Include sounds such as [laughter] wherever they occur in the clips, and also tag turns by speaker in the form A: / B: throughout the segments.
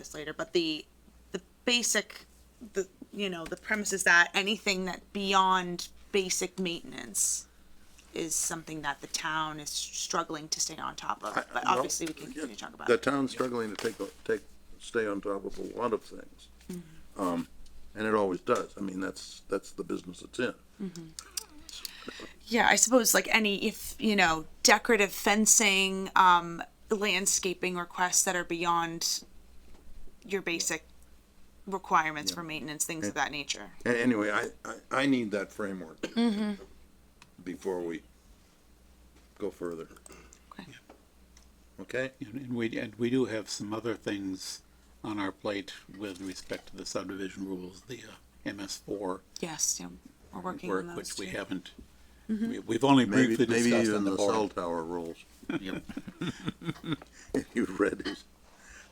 A: this later, but the, the basic, the, you know, the premise is that anything that beyond basic maintenance is something that the town is struggling to stay on top of, but
B: well,
A: obviously we can continue to talk about
B: The
A: it.
B: town's struggling to take, o- take, stay on top of a lot of things.
A: Mm-hmm.
B: Um, and it always does. I mean, that's, that's the business it's in.
A: Yeah, I suppose like any, if, you know, decorative fencing, um, landscaping requests that are beyond your basic requirements for maintenance, things of that nature.
B: A- Anyway, I, I, I need that framework
A: Mm-hmm.
B: before we go further.
A: Okay.
B: Okay?
C: And and we, and we do have some other things on our plate with respect to the subdivision rules, the MS four
A: Yes, yeah, we're working on
C: work,
A: those
C: which we
A: too.
C: haven't, we- we've only
B: Maybe,
C: briefly
B: maybe
C: discussed on
B: even
C: the
B: the cell
C: board.
B: tower rules,
C: [laughs]
B: [laughs]
C: Yep.
B: if you've read these.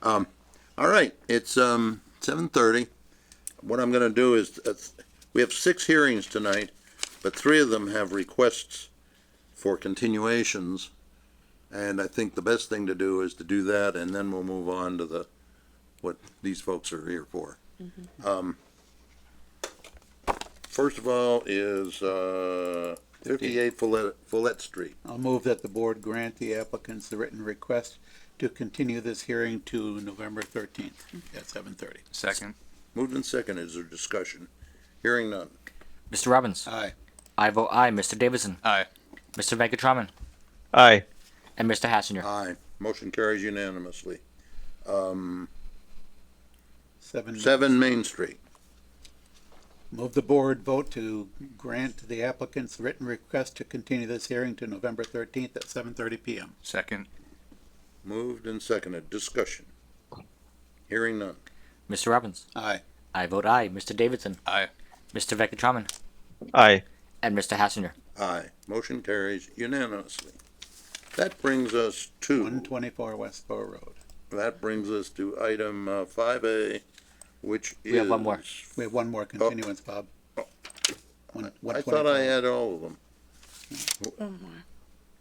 B: Um, all right, it's, um, seven thirty. What I'm gonna do is, uh, we have six hearings tonight, but three of them have requests for continuations. And I think the best thing to do is to do that, and then we'll move on to the, what these folks are here for. Um, First of all is, uh, fifty-eight Follette, Follette Street.
C: I'll move that the board grant the applicants the written request to continue this hearing to November thirteenth at seven thirty.
D: Second.
B: Moved and seconded. Is there discussion? Hearing none.
E: Mr. Robbins.
C: Aye.
E: I vote aye. Mr. Davidson.
D: Aye.
E: Mr. Venkataraman.
D: Aye.
E: And Mr. Hassinger.
B: Aye. Mm-hmm. Motion carries unanimously.
C: Seven.
B: Seven Main Street.
C: Move the board vote to grant the applicants written request to continue this hearing to November thirteenth at seven thirty PM.
D: Second.
B: Moved and seconded. Discussion. Hearing none.
E: Mr. Robbins.
C: Aye.
E: I vote aye. Mr. Davidson.
D: Aye.
E: Mr. Venkataraman.
D: Aye.
E: And Mr. Hassinger.
B: Aye. Motion carries unanimously. That brings us to.
C: One twenty-four West Bow Road.
B: That brings us to item uh, five A, which is.
E: We have one more.
C: We have one more continuance, Bob. One- one
B: Oh. I thought I
C: 24.
B: had all of them.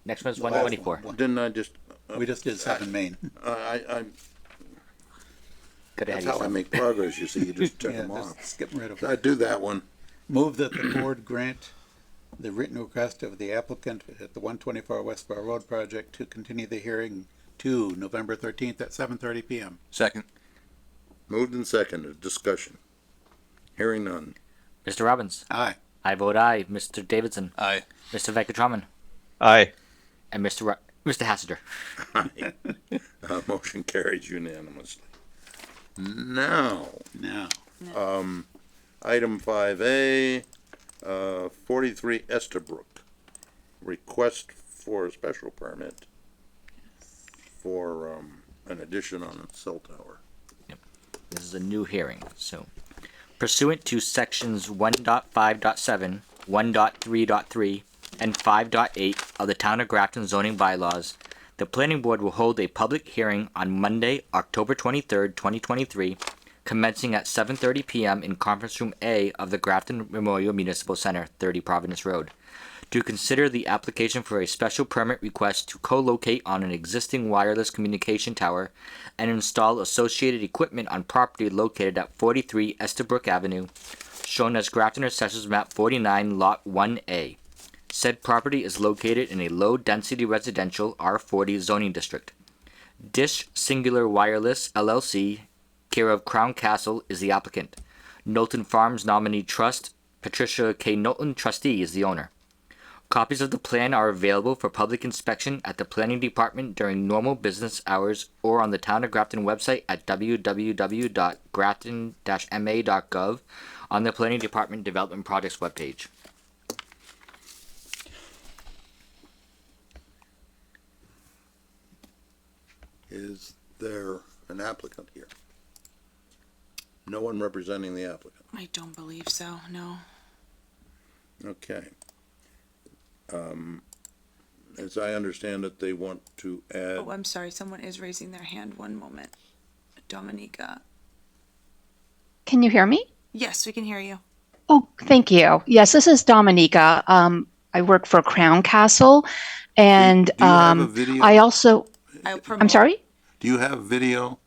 E: Next one's
C: The last one.
E: 124.
B: Didn't I just,
C: We just did seven main.
B: I, I, I- that's
E: Good ahead of
B: how I
E: yourself.
B: make progress, you see, you
E: [laughs]
B: just check
C: Yeah,
B: them
C: just
B: off.
C: skip rid of
B: I
C: it.
B: do that one.
C: Move that the board grant the written request of the applicant at the one twenty-four West Bar Road project to continue the hearing to November thirteenth at seven thirty PM.
D: Second.
B: Moved and seconded. Discussion. Hearing none.
E: Mr. Robbins.
C: Aye.
E: I vote aye. Mr. Davidson.
D: Aye.
E: Mr. Venkataraman.
D: Aye.
E: And Mr. Ro- Mr. Hassinger.
B: Uh, [laughs] motion carries unanimously. Now,
C: Now,
B: item five A, uh, forty-three Estabrook. Request for a special permit for, um, an addition on a cell tower.
E: This is a new hearing, so. Pursuant to sections 1.5.7, 1.3.3, and five point eight of the Town of Grafton zoning bylaws, the planning board will hold a public hearing on Monday, October twenty-third, twenty twenty-three, commencing at seven thirty PM in Conference Room A of the Grafton Memorial Municipal Center, thirty Providence Road, to consider the application for a special permit request to co-locate on an existing wireless communication tower and install associated equipment on property located at 43 Estabrook Avenue, shown as Grafton Assessors Map 49, Lot 1A. Said property is located in a low-density residential R40 zoning district. Dish Singular Wireless LLC, care of Crown Castle, is the applicant. Knowlton Farms Nominee Trust, Patricia K. Knowlton Trustee, is the owner. Copies of the plan are available for public inspection at the Planning Department during normal business hours or on the Town of Grafton website at www.grafton-ma.gov on the Planning Department Development Projects webpage.
B: Is there an applicant here? No one representing the applicant.
A: I don't believe so, no.
B: Okay. Um, as I understand it, they want to add.
A: Oh, I'm sorry, someone is raising their hand, one moment. Dominica,
F: Can you hear me?
A: yes, we can hear you.
F: Oh, thank you. Yes, this is Dominica. Um, I work for Crown Castle, and
B: Do you have a
F: um,
B: video?
F: I also.
A: I'll
F: I'm
A: promote-
F: sorry.
B: Do you have video?